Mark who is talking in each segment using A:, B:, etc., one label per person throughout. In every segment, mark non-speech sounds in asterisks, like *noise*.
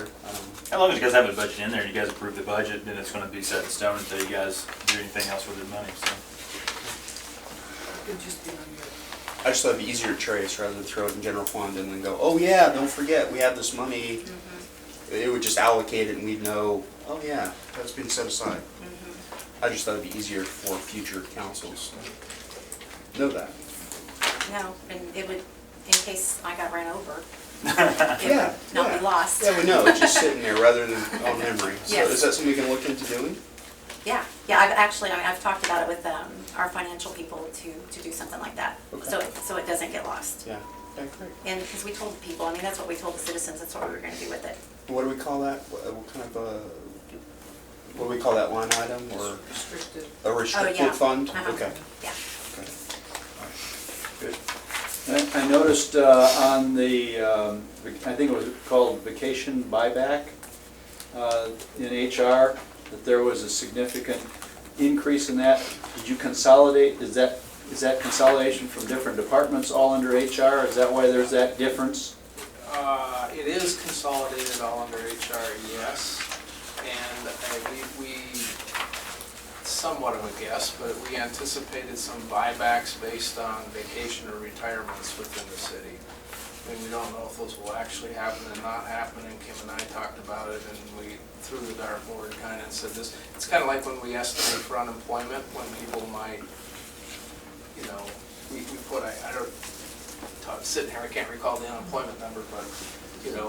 A: Um,
B: As long as you guys have a budget in there and you guys approve the budget, then it's gonna be set in stone until you guys do anything else with the money, so.
C: It'd just be on your,
A: I just thought it'd be easier to trace rather than throw it in general fund and then go, oh yeah, don't forget, we have this money.
D: Mm-hmm.
A: It would just allocate it and we'd know, oh yeah, that's been set aside.
D: Mm-hmm.
A: I just thought it'd be easier for future councils to know that.
D: No, and it would, in case I got ran over,
B: *laughs*
A: Yeah.
D: it would not
A: yeah.
D: be lost.
A: Yeah, we
D: *laughs*
A: know, it's just sitting there rather than on memory. So
D: Yes.
A: is that something we can look into doing?
D: Yeah, yeah, I've actually, I mean, I've talked about it with um, our financial people to, to do something like that.
A: Okay.
D: So, it- so it doesn't get lost.
A: Yeah. Okay, great.
D: And, because we told the people, I mean, that's what we told the citizens, that's what we were gonna do with it.
A: What do we call that? What what kind of a, what do we call that line item or
C: restricted.
A: a
D: Oh, yeah.
A: restricted fund?
D: Uh-huh.
A: Okay.
D: Yeah.
A: Okay.
E: I I noticed uh, on the, um, vac- I think it was called vacation buyback uh, in HR, that there was a significant increase in that. Did you consolidate, is that, is that consolidation from different departments all under HR? Is that why there's that difference?
F: Uh, It is consolidated all under HR, yes. And uh, we, we, somewhat of a guess, but we anticipated some buybacks based on vacation or retirements within the city. I mean, we don't know if those will actually happen and not happen, and Kim and I talked about it, and we threw the dartboard kind of said this. It's kind of like when we estimate for unemployment, when people might, you know, we, we put, I, I don't, I'm sitting here, I can't recall the unemployment number, but, you know,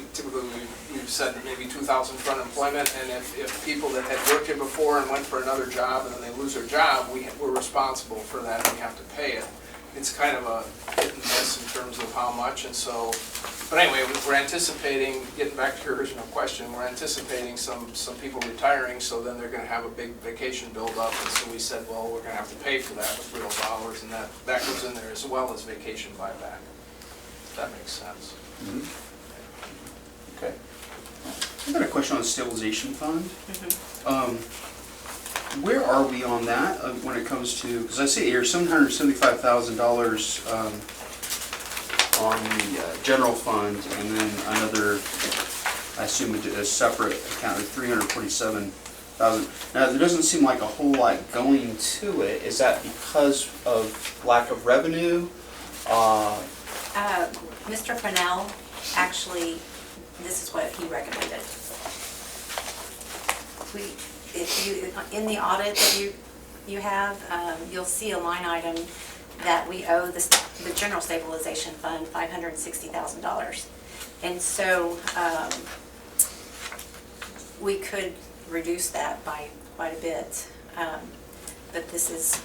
F: we typically, we- we've said maybe 2,000 for unemployment, and if, if people that had worked here before and went for another job, and then they lose their job, we, we're responsible for that, and we have to pay it. It's kind of a hit and miss in terms of how much, and so, but anyway, we- we're anticipating, getting back to your original question, we're anticipating some, some people retiring, so then they're gonna have a big vacation buildup, and so we said, well, we're gonna have to pay for that with real dollars, and that, that goes in there as well as vacation buyback. If that makes sense.
E: Okay.
A: I've got a question on stabilization fund. Um, Where are we on that uh, when it comes to, because I see here seven hundred seventy-five thousand dollars on the uh, general fund and then another, I assume a a separate account of three hundred forty-seven thousand. Now, there doesn't seem like a whole lot going to it. Is that because of lack of revenue? Uh,
D: Uh, Mr. Fennell, actually, this is what he recommended. We, if you, in the audit that you, you have, um, you'll see a line item that we owe the, st- the general stabilization fund $560,000. And so um, we could reduce that by quite a bit. Um, But this is,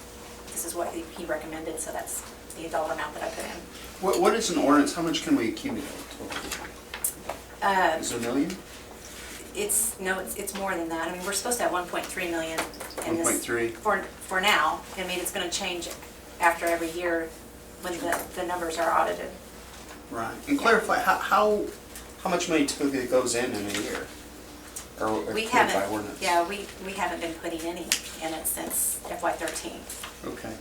D: this is what he he recommended, so that's the dollar amount that I put in.
A: What What is an ordinance? How much can we accumulate?
D: Uh,
A: Is there a million?
D: It's, no, it's, it's more than that. I mean, we're supposed to have one point three million in this.
A: 1.3.
D: For, for now. I mean, it's gonna change after every year when the, the numbers are audited.
A: Right, and clarify, how, how, how much money typically goes in in a year? Or
D: We
A: approved by
D: haven't,
A: ordinance?
D: yeah, we, we haven't been putting any in it since FY thirteen.
A: Okay,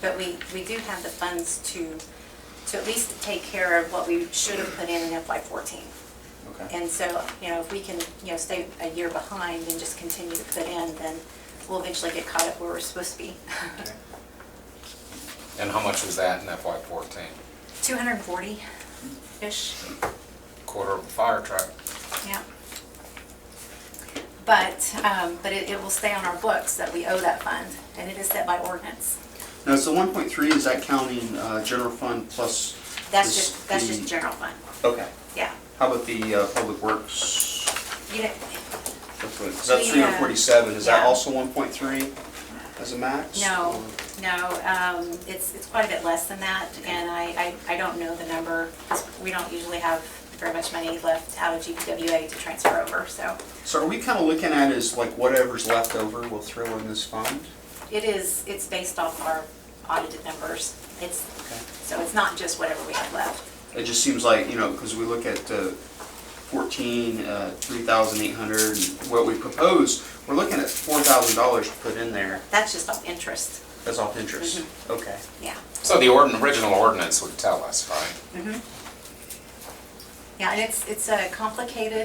D: But we, we do have the funds to, to at least take care of what we should have put in in FY fourteen.
A: okay.
D: And so, you know, if we can, you know, stay a year behind and just continue to put in, then we'll eventually get caught up where we're supposed to be.
G: And how much was that in FY fourteen?
D: 240-ish,
G: Quarter of a fire truck.
D: yeah. But, um, but it, it will stay on our books that we owe that fund, and it is set by ordinance.
A: Now, so one point three, is that counting, uh, general fund plus?
D: That's
A: this-
D: just, that's
A: the-
D: just general fund,
A: Okay,
D: yeah.
A: how about the, uh, public works?
D: You know,
A: That's what- Is that
D: We, uh,
A: three hundred forty-seven, is that
D: yeah.
A: also one point three as a max?
D: no,
A: or-
D: no, um, it's, it's quite a bit less than that, and I, I, I don't know the number. 'cause We don't usually have very much money left out of GPWA to transfer over, so
A: So are we kinda looking at is like whatever's left over, we'll throw in this fund?
D: it is, it's based off our audited numbers. It's,
A: Okay.
D: so it's not just whatever we have left.
A: It just seems like, you know, because we look at uh, 14, uh, 3,800, and what we propose, we're looking at $4,000 to put in there
D: That's just off interest,
A: as off interest. Okay.
D: yeah.
G: So the ordin, original ordinance would tell us, right?
D: Yeah, and it's, it's uh, complicated